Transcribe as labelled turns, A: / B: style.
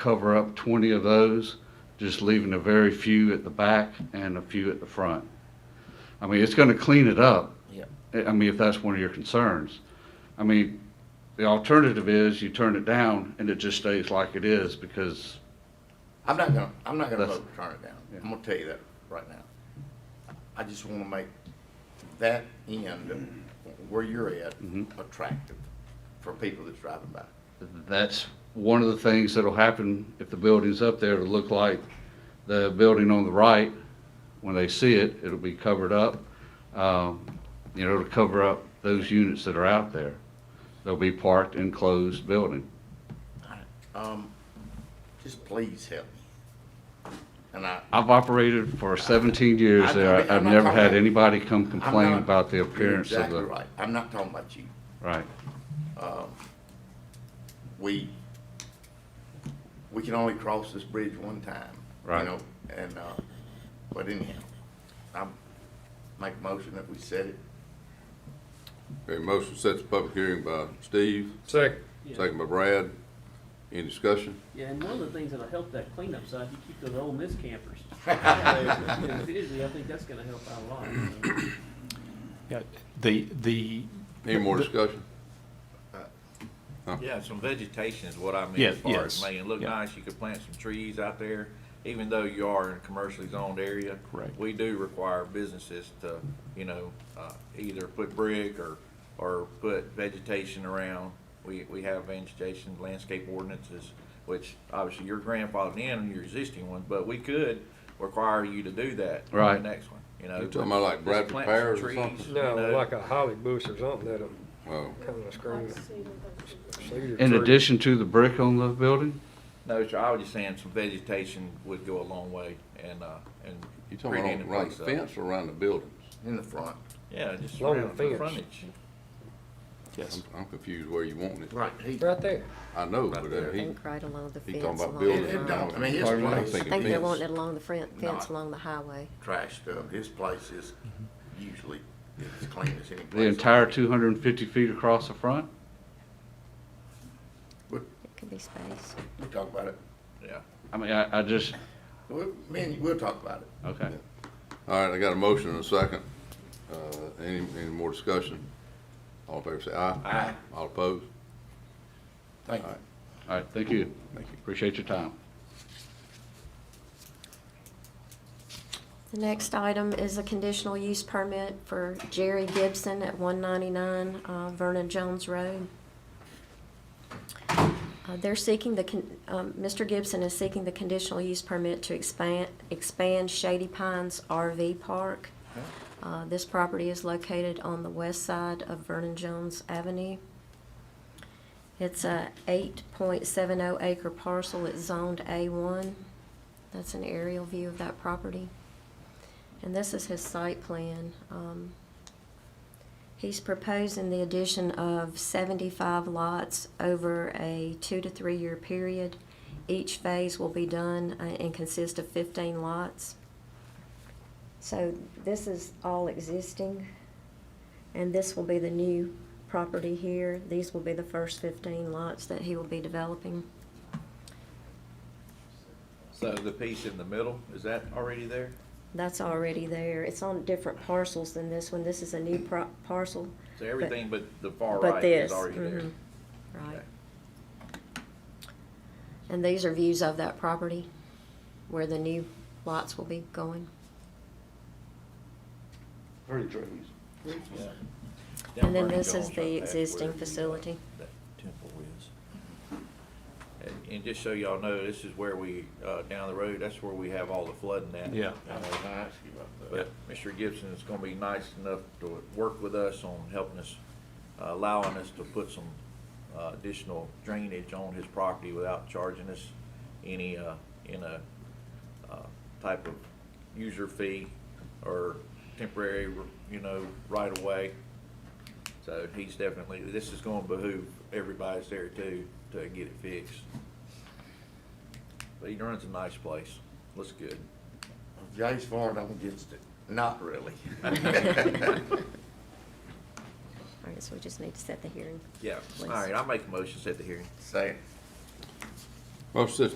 A: cover up 20 of those, just leaving a very few at the back and a few at the front. I mean, it's going to clean it up.
B: Yeah.
A: I I mean, if that's one of your concerns. I mean, the alternative is you turn it down and it just stays like it is because,
B: I'm not gonna, I'm not gonna
A: That's-
B: vote to turn it down.
A: Yeah.
B: I'm gonna tell you that right now. I just wanna make that end of where you're at
A: Mhm.
B: attractive for people that's driving by.
A: that's one of the things that'll happen if the building's up there, it'll look like the building on the right, when they see it, it'll be covered up. Um, You know, to cover up those units that are out there. They'll be parked in closed building.
B: Um, just please help me. And I,
A: I've operated for seventeen years
B: I-
A: there.
B: I'm
A: I've
B: not
A: never had
B: talking-
A: anybody come complain
B: not-
A: about the
B: you're
A: appearance of
B: exactly
A: the,
B: right. I'm not talking about you.
A: right.
B: We, we can only cross this bridge one time.
A: Right.
B: You know, and, uh, but anyhow, I'm, make a motion that we set it
C: Okay, motion sets public hearing by Steve,
D: Second.
E: Yeah,
C: second by Brad. Any discussion?
E: yeah, and one of the things that'll help that cleanup side, you keep those old miss campers. Usually, I think that's gonna help out a lot. so.
F: Yeah, the, the,
C: Any more discussion?
G: Yeah, some vegetation is what I mean
F: Yeah,
G: as far as
F: yes,
G: making it look
F: yeah.
G: nice. You could plant some trees out there, even though you are in a commercially zoned area.
F: Correct.
G: We do require businesses to, you know, uh, either put brick or, or put vegetation around. We, we have vegetation landscape ordinances, which obviously your grandfathered in and your existing one, but we could require you to do that. on
A: Right.
G: The next one, you know.
C: You talking about like
G: Just
C: Bradford
G: plant some
C: pears or
G: trees,
C: something?
G: you
D: No,
G: know.
D: like a holly bush or something that'll
C: Oh,
D: kind of screen it.
A: In addition to the brick on the building?
G: No, sir, I was just saying some vegetation would go a long way and, uh, and.
C: you talking
G: creating
C: about
G: a
C: around
G: place
C: the
G: up.
C: fence or around the buildings?
B: in the front.
G: Yeah, just
D: Along the
G: around the
D: fence.
G: frontage.
F: yes,
C: I'm- I'm confused where you want it.
B: Right. He,
D: Right there.
C: I know, but uh, he,
H: think right along the
C: he
H: fence.
C: talking about
H: along
C: buildings.
H: the
B: It
H: line.
B: don't. I mean, his
A: Pardon me?
B: place-
H: I think they
C: fence.
H: want it along the front fence,
B: Not-
H: along the highway.
B: trash dump, um, his place is usually as clean as any place.
A: The entire two hundred and fifty feet across the front?
H: It could be space.
B: We'll talk about it.
G: Yeah.
A: I mean, I, I just,
B: We, me and you, we'll talk about it.
A: okay.
C: All right, I got a motion and a second. Uh, Any, any more discussion? All in favor say aye.
G: Aye.
C: All opposed?
B: Thank you.
A: All right, thank you.
C: Thank you.
A: Appreciate your time.
H: The next item is a conditional use permit for Jerry Gibson at one ninety-nine uh, Vernon Jones Road. Uh, They're seeking the, con- um, Mr. Gibson is seeking the conditional use permit to expand, expand Shady Pines RV Park. Uh, This property is located on the west side of Vernon Jones Avenue. It's a eight point seven oh acre parcel. It's zoned A one. That's an aerial view of that property. And this is his site plan. Um, He's proposing the addition of seventy-five lots over a two to three-year period. Each phase will be done uh, and consist of fifteen lots. So this is all existing, and this will be the new property here. These will be the first fifteen lots that he will be developing.
G: So the piece in the middle, is that already there?
H: That's already there. It's on different parcels than this one. This is a new pro- parcel,
G: So everything but the far
H: but
G: right is
H: this,
G: already there.
H: mhm, right.
G: Okay.
H: And these are views of that property, where the new lots will be going.
G: Down
H: And then
G: Vernon
H: this is
G: Jones, right
H: the
G: back
H: existing
G: where the, uh,
H: facility.
G: that Temple is. And- And just so y'all know, this is where we, uh, down the road, that's where we have all the flooding at. uh,
F: Yeah.
B: I was gonna ask you about that.
G: But Mr. Gibson is gonna be nice enough to work with us on helping us, uh, allowing us to put some uh, additional drainage on his property without charging us any, uh, in a, uh, type of user fee or temporary, you know, right of way. So he's definitely, this is gonna behoove everybody's there too, to get it fixed. But he runs a nice place, looks good.
B: Jay's for it, I'm against it. Not really.
H: All right, so we just need to set the hearing.
G: Yeah,
H: Please.
G: all right, I'll make a motion, set the hearing.
B: Say it.
C: Motion sets